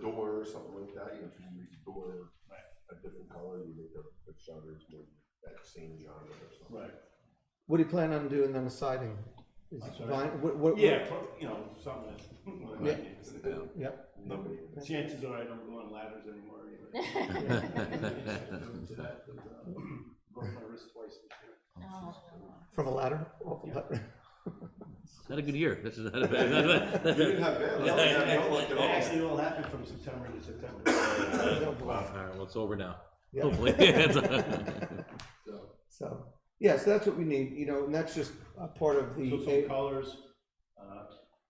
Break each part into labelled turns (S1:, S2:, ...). S1: color or something like that, you know, if you restore
S2: Right.
S1: a different color, you make the, the shutters more that same genre or something.
S2: Right.
S3: What do you plan on doing on the siding? Is
S2: That's
S3: it
S2: what I-
S3: vinyl? What, what?
S2: Yeah, pro- you know, something that.
S3: Yep.
S1: Nobody.
S2: Chances are I don't go on ladders anymore anyway. To that, but, uh, Broke my wrist twice this year.
S4: Oh,
S3: From a ladder? Off
S2: Oh,
S3: a
S2: Yeah.
S3: ladder.
S5: Not a good year. This is not a bad. not
S1: You
S5: a-
S1: didn't have bad luck, you had no luck at
S2: It
S1: all.
S2: actually all happened from September to September.
S3: No, boy.
S5: All right, well, it's over now.
S3: Yeah.
S5: Hopefully. uh,
S2: So,
S3: So, yeah, so that's what we need, you know, and that's just a part of the.
S2: so some colors, uh,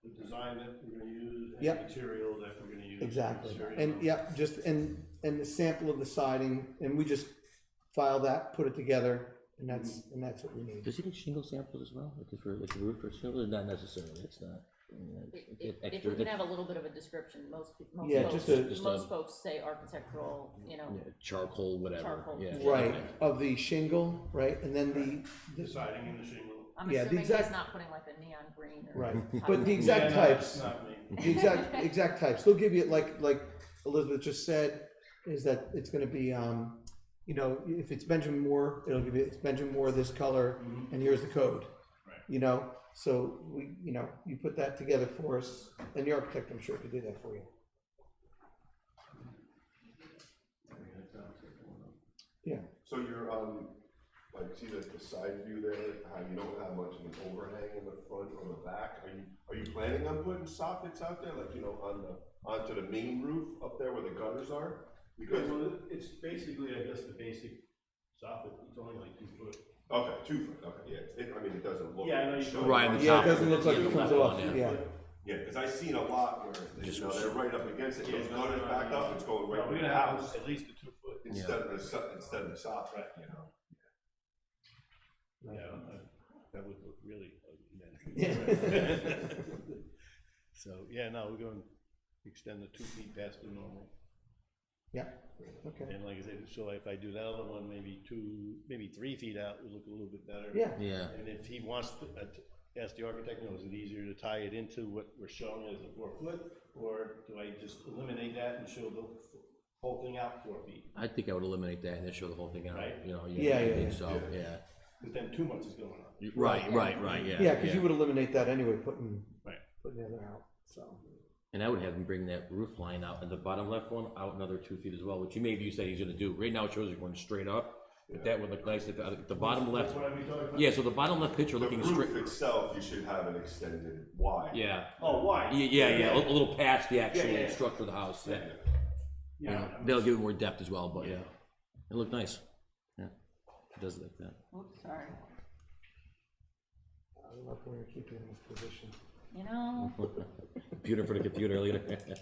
S2: the design that we're gonna use, and
S3: Yep.
S2: material that we're gonna use.
S3: Exactly,
S2: material.
S3: and, yep, just, and, and the sample of the siding, and we just file that, put it together, and that's, and that's what we need.
S5: Does he get shingle samples as well? Like if we're, like roof or shingle, not necessarily, it's not. I mean, it's- it's
S4: If if
S5: extra-
S4: we can have a little bit of a description, most, pe- most
S3: Yeah, just a-
S4: folks,
S5: Just a-
S4: most folks say architectural, you know,
S5: yeah, Charcoal, whatever,
S4: Charcoal.
S5: yeah.
S3: Right, of the shingle, right, and then the, the,
S2: Deciding in the shingle.
S4: I'm
S3: Yeah, the
S4: assuming he's
S3: exact- not
S4: not putting like a neon green or.
S3: right, but the
S2: Yeah,
S3: exact
S2: no, that's
S3: types,
S2: Not me.
S3: the exact, exact types, they'll give you, like, like Elizabeth just said, is that it's gonna be, um, you know, if it's Benjamin Moore, it'll give you, it's Benjamin Moore this color,
S2: Mhm.
S3: and here's the code.
S2: Right.
S3: You know, so we, you know, you put that together for us, and the architect, I'm sure, could do that for you. Yeah,
S1: So you're, um, like, see like the side view there, how you don't have much of an overhang in the front or the back? Are you, are you planning on putting soffits out there, like, you know, on the, onto the main roof up there where the gutters are? Because,
S2: Well, it's basically, I guess, the basic soffit, it's only like two foot.
S1: okay, two foot, okay, yeah, it, I mean, it doesn't look.
S2: Yeah, I know you-
S1: showing
S5: Right on
S1: much.
S5: the
S3: yeah,
S5: top.
S3: it doesn't look like
S5: Yeah,
S3: it
S5: the
S3: comes
S5: left
S3: off,
S5: one,
S3: yeah,
S1: Yeah, because I seen a lot where, they- you know, they're right up against it, those
S2: Yeah, no,
S1: gutters
S2: no,
S1: back
S2: no.
S1: up, it's going right
S2: We're
S1: to
S2: gonna
S1: the
S2: have
S1: house,
S2: at least a two foot.
S1: instead of the, so- instead of the soffit, you know?
S2: Yeah, that would look really ugly then. So, yeah, no, we're going to extend the two feet past the normal.
S3: yeah, okay,
S2: And like I said, so if I do that other one, maybe two, maybe three feet out, it would look a little bit better.
S3: yeah,
S5: Yeah,
S2: And if he wants to, uh, t- ask the architect, you know, is it easier to tie it into what we're showing as a four foot? Or do I just eliminate that and show the whole thing out four feet?
S5: I think I would eliminate that and then show the whole thing out,
S2: Right.
S5: you know,
S3: Yeah,
S5: yeah, I
S3: yeah,
S5: think
S3: yeah.
S5: so, yeah.
S2: Because then too much is going on.
S5: You- Right, right, right, yeah.
S3: yeah, cause you would eliminate that anyway, putting,
S2: Right.
S3: putting the other out, so.
S5: And I would have him bring that roof line out, and the bottom left one out another two feet as well, which you maybe you said he's gonna do. Right now it shows it going straight up, but that would look nice if, uh, the- the bottom left,
S2: What are we talking about?
S5: yeah, so the bottom left picture
S1: The
S5: looking
S1: roof
S5: straight,
S1: itself, you should have it extended wide.
S5: yeah.
S2: Oh, why?
S5: Yeah, yeah, yeah, a a little past the
S2: Yeah, yeah,
S5: actual
S2: yeah.
S5: structure of the house, yeah.
S2: Yeah,
S5: Yeah,
S2: I'm
S5: That'll
S2: just-
S5: give it more depth as well, but yeah, it looked nice, yeah, it does look that.
S4: Oops, sorry,
S3: I don't know if we're gonna keep you in this position.
S4: you know,
S5: Computer for the computer later.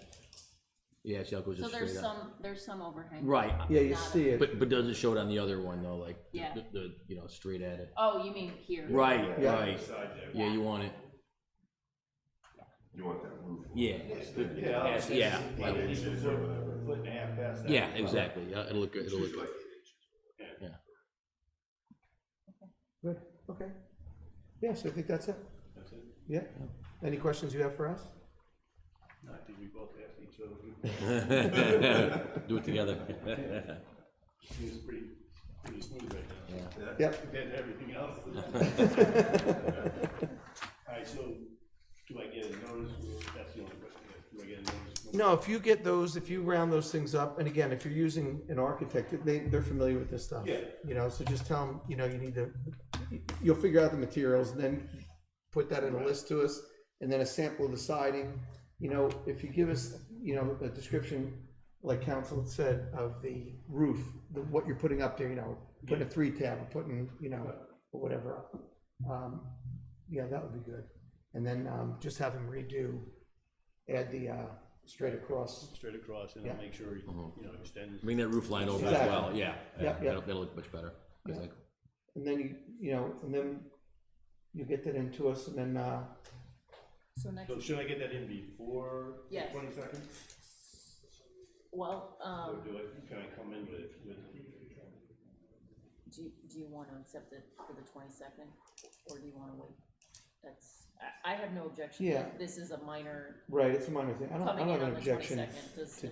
S5: Yeah, see how it goes
S4: so
S5: just
S4: there's
S5: straight up.
S4: some, there's some overhang.
S5: Right,
S3: Yeah, you
S4: Got it.
S3: see it,
S5: but, but does it show it on the other one though, like, the-
S4: Yeah.
S5: the, the, you know, straight at it?
S4: Oh, you mean here?
S5: Right,
S3: Yeah.
S5: right,
S2: Side there.
S5: yeah, you want it,
S1: You want that roof.
S5: yeah,
S2: Yeah.
S5: Yes,
S2: that's-
S5: yeah,
S2: Like
S5: yeah.
S2: an inch or a foot and a half past that.
S5: yeah, exactly, yeah, it'll look good, it'll look
S1: Usually
S5: good.
S1: like eight inches.
S3: good, okay. Yes, I think that's it,
S2: That's it.
S3: yeah, any questions you have for us?
S2: No, I think we both asked each other.
S5: Do it together.
S2: It's pretty, pretty smooth right now.
S3: Yep.
S2: Compared to everything else. All right, so do I get a notice? That's the only question. Do I get a notice?
S3: No, if you get those, if you round those things up, and again, if you're using an architect, they, they're familiar with this stuff.
S2: Yeah.
S3: You know, so just tell them, you know, you need to, you'll figure out the materials, and then put that in a list to us, and then a sample of the siding. You know, if you give us, you know, a description, like council said, of the roof, the- what you're putting up there, you know, putting a three tab, or putting, you know, or whatever. up. Um, Yeah, that would be good. And then, um, just have them redo, add the, uh, straight across
S2: Straight across and I'll
S3: Yeah.
S2: make sure, you know, extend.
S5: Bring that roof Mm-hmm. line over as
S3: Exactly.
S5: well, yeah,
S3: Yeah,
S5: yeah,
S3: yeah.
S5: that'll, that'll look much better, 'Cause like,
S3: And then you, you know, and then you get that into us and then, uh,
S4: So next,
S2: So should I get that in before the
S4: Yes.
S2: twenty second?
S4: well,
S2: Or
S4: um,
S2: do I, can I come in with, with,
S4: do, you- do you wanna accept it for the twenty-second, or do you wanna wait? That's, I, I have no objection,
S3: Yeah.
S4: this is a minor
S3: right, it's a minor thing. I don't, I
S4: coming
S3: don't
S4: in
S3: have
S4: on
S3: an
S4: the
S3: objection.
S4: twenty-second, does
S3: to